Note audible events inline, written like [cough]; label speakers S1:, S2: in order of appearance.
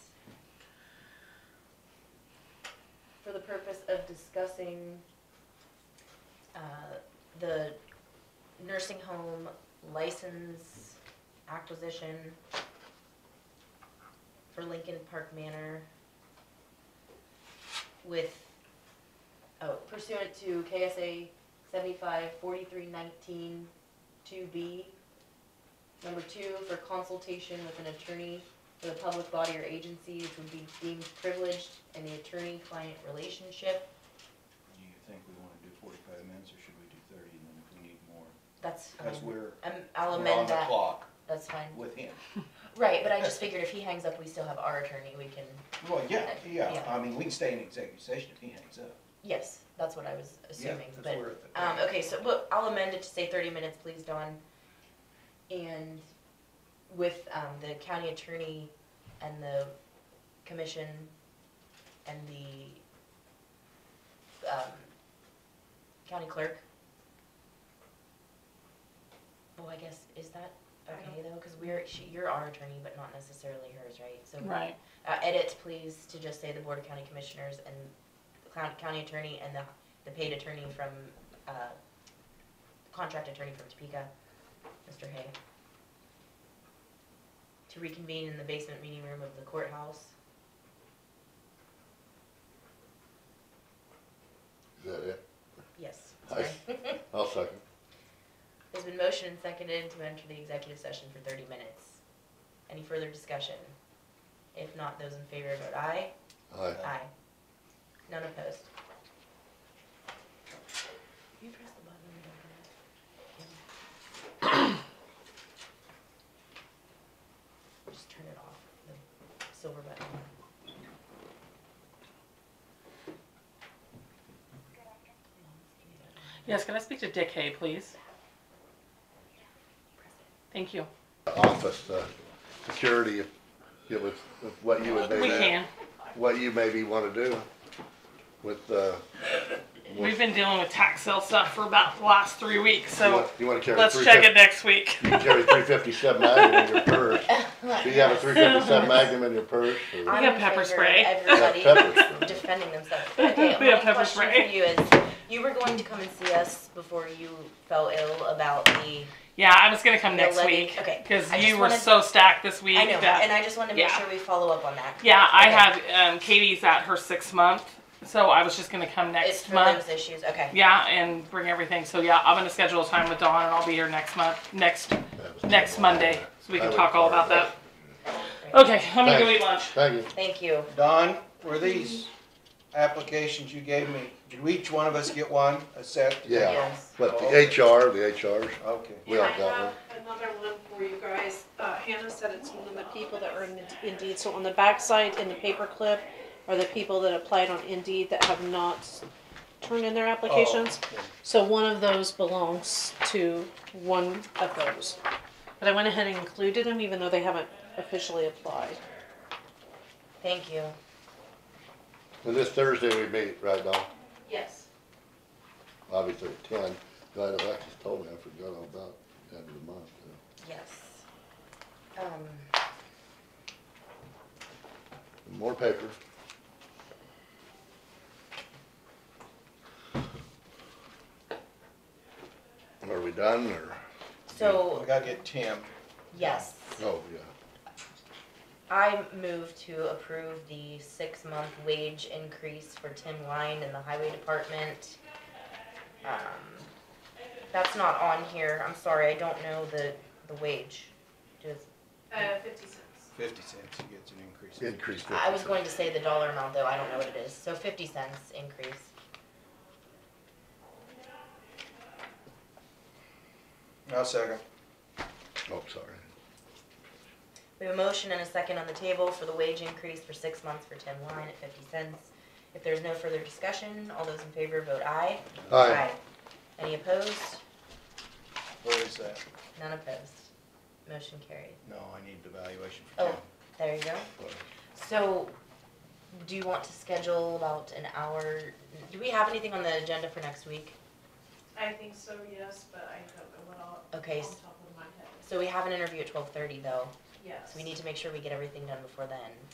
S1: discussing uh, the nursing home license acquisition for Lincoln Park Manor with, oh, pursuant to KSA seventy-five forty-three nineteen two B. Number two, for consultation with an attorney for the public body or agency which would be deemed privileged in the attorney-client relationship.
S2: Do you think we wanna do forty-five minutes, or should we do thirty, and then if we need more?
S1: That's
S2: Cause
S1: fine.
S2: we're,
S1: Um, I'll
S2: we're on
S1: amend
S2: the
S1: that.
S2: clock
S1: That's fine.
S2: with him.
S1: Right, but I just figured if he hangs up, we still have our attorney. We can,
S2: Well, yeah, yeah,
S1: Yeah.
S2: I mean, we can stay in executive session if he hangs up.
S1: yes, that's what I was
S2: Yeah,
S1: assuming,
S2: that's
S1: but.
S2: where it-
S1: Um, okay, so, but I'll amend it to say thirty minutes, please, Dawn. And with, um, the county attorney and the commission and the, um, county clerk. Well, I guess, is that
S3: I
S1: okay though, cause we're, she, you're our attorney, but not necessarily hers, right? So
S4: Right,
S1: uh, edit, please, to just say the Board of County Commissioners and the clown- county attorney and the, the paid attorney from, uh, contract attorney from Topeka, Mr. Hay. To reconvene in the basement meeting room of the courthouse.
S5: Is that it?
S1: Yes. [laughs]
S5: I-
S1: sorry.
S5: I'll second.
S1: There's been motion and seconded to enter the executive session for thirty minutes. Any further discussion? If not, those in favor vote aye.
S5: Aye.
S1: Aye. None opposed. You press the button on the document. Just turn it off, the silver button.
S4: yes, can I speak to Dick Hay, please? Thank you.
S5: Office, uh, security, if it was, if what you would
S4: We
S5: maybe.
S4: can,
S5: What you maybe wanna do with, uh.
S4: we've been dealing with tax sale stuff for about the last three weeks,
S5: you
S4: so
S5: want- You wanna carry.
S4: let's check it next week. [laughs]
S5: 350 You carry three fifty-seven Magnum in your purse. Do you have a
S1: [laughs]
S5: three fifty-seven Magnum in your purse? or-
S1: I'm
S4: have
S1: in
S4: pepper
S1: favor of
S4: spray.
S1: Everybody
S5: [laughs] Yeah, pepper spray.
S1: defending
S4: [laughs]
S1: themselves. Okay,
S4: We have
S1: my
S4: pepper
S1: question for
S4: spray.
S1: you is, you were going to come and see us before you fell ill about the
S4: Yeah, I was gonna come
S1: You're
S4: next
S1: letting-
S4: week,
S1: okay.
S4: cause
S1: I
S4: you
S1: just
S4: were
S1: wanted-
S4: so stacked this week
S1: I know, and
S4: that,
S1: I just wanted to make
S4: yeah.
S1: sure we follow up on that.
S4: yeah, I
S1: Okay.
S4: have, um, Katie's at her sixth month, so I was just gonna come
S1: It's
S4: next
S1: for
S4: month.
S1: those issues, okay.
S4: Yeah, and bring everything, so yeah, I'm gonna schedule a time with Dawn and I'll be here next month, next,
S5: That was
S4: next
S5: the one.
S4: Monday, so we
S5: I
S4: can
S5: would
S4: talk all
S5: carry
S4: about
S5: that.
S4: that. Okay, I'm gonna go
S5: Thanks.
S4: eat lunch.
S5: Thank you.
S1: Thank you.
S6: Don, were these applications you gave me, did each one of us get one, a set?
S5: Yeah.
S1: Yes.
S5: But the HR, the HRs,
S6: Okay.
S5: we all got one.
S3: And I have another one for you guys. Uh, Hannah said it's from the people that are in Indeed. So on the backside in the paperclip are the people that applied on Indeed that have not turned in their applications.
S6: Oh, okay.
S3: So one of those belongs to one of those. But I went ahead and included them even though they haven't officially applied.
S1: Thank you.
S5: And this Thursday we meet, right, Don?
S3: Yes.
S5: Obviously at ten. Glad Alexis told me, I forgot all about the end of the month. you know.
S1: Yes. Um,
S5: More paper. Are we done or?
S6: Oh, I
S1: so,
S6: gotta get Tim.
S1: yes,
S5: Oh, yeah.
S1: I move to approve the six-month wage increase for Tim Line in the highway department. Um, that's not on here. I'm sorry, I don't know the, the wage. Just-
S3: Uh, fifty cents.
S6: Fifty cents, he gets an increase.
S5: Increase.
S1: I was going to say the dollar amount though, I don't know what it is. So fifty cents increase.
S6: I'll second.
S5: Oh, sorry.
S1: We have a motion and a second on the table for the wage increase for six months for Tim Line at fifty cents. If there's no further discussion, all those in favor vote aye.
S5: Aye.
S1: Any opposed?
S6: Where is that?
S1: None opposed. Motion carried.
S6: No, I need the valuation for
S1: Oh,
S6: Tim.
S1: there you go. So, do you want to schedule about an hour? Do we have anything on the agenda for next week?
S3: I think so, yes, but I don't know what all,
S1: Okay, s-
S3: top of my head,
S1: so we have an interview at twelve thirty though,
S3: yes.
S1: so we need to make sure we get everything done before then.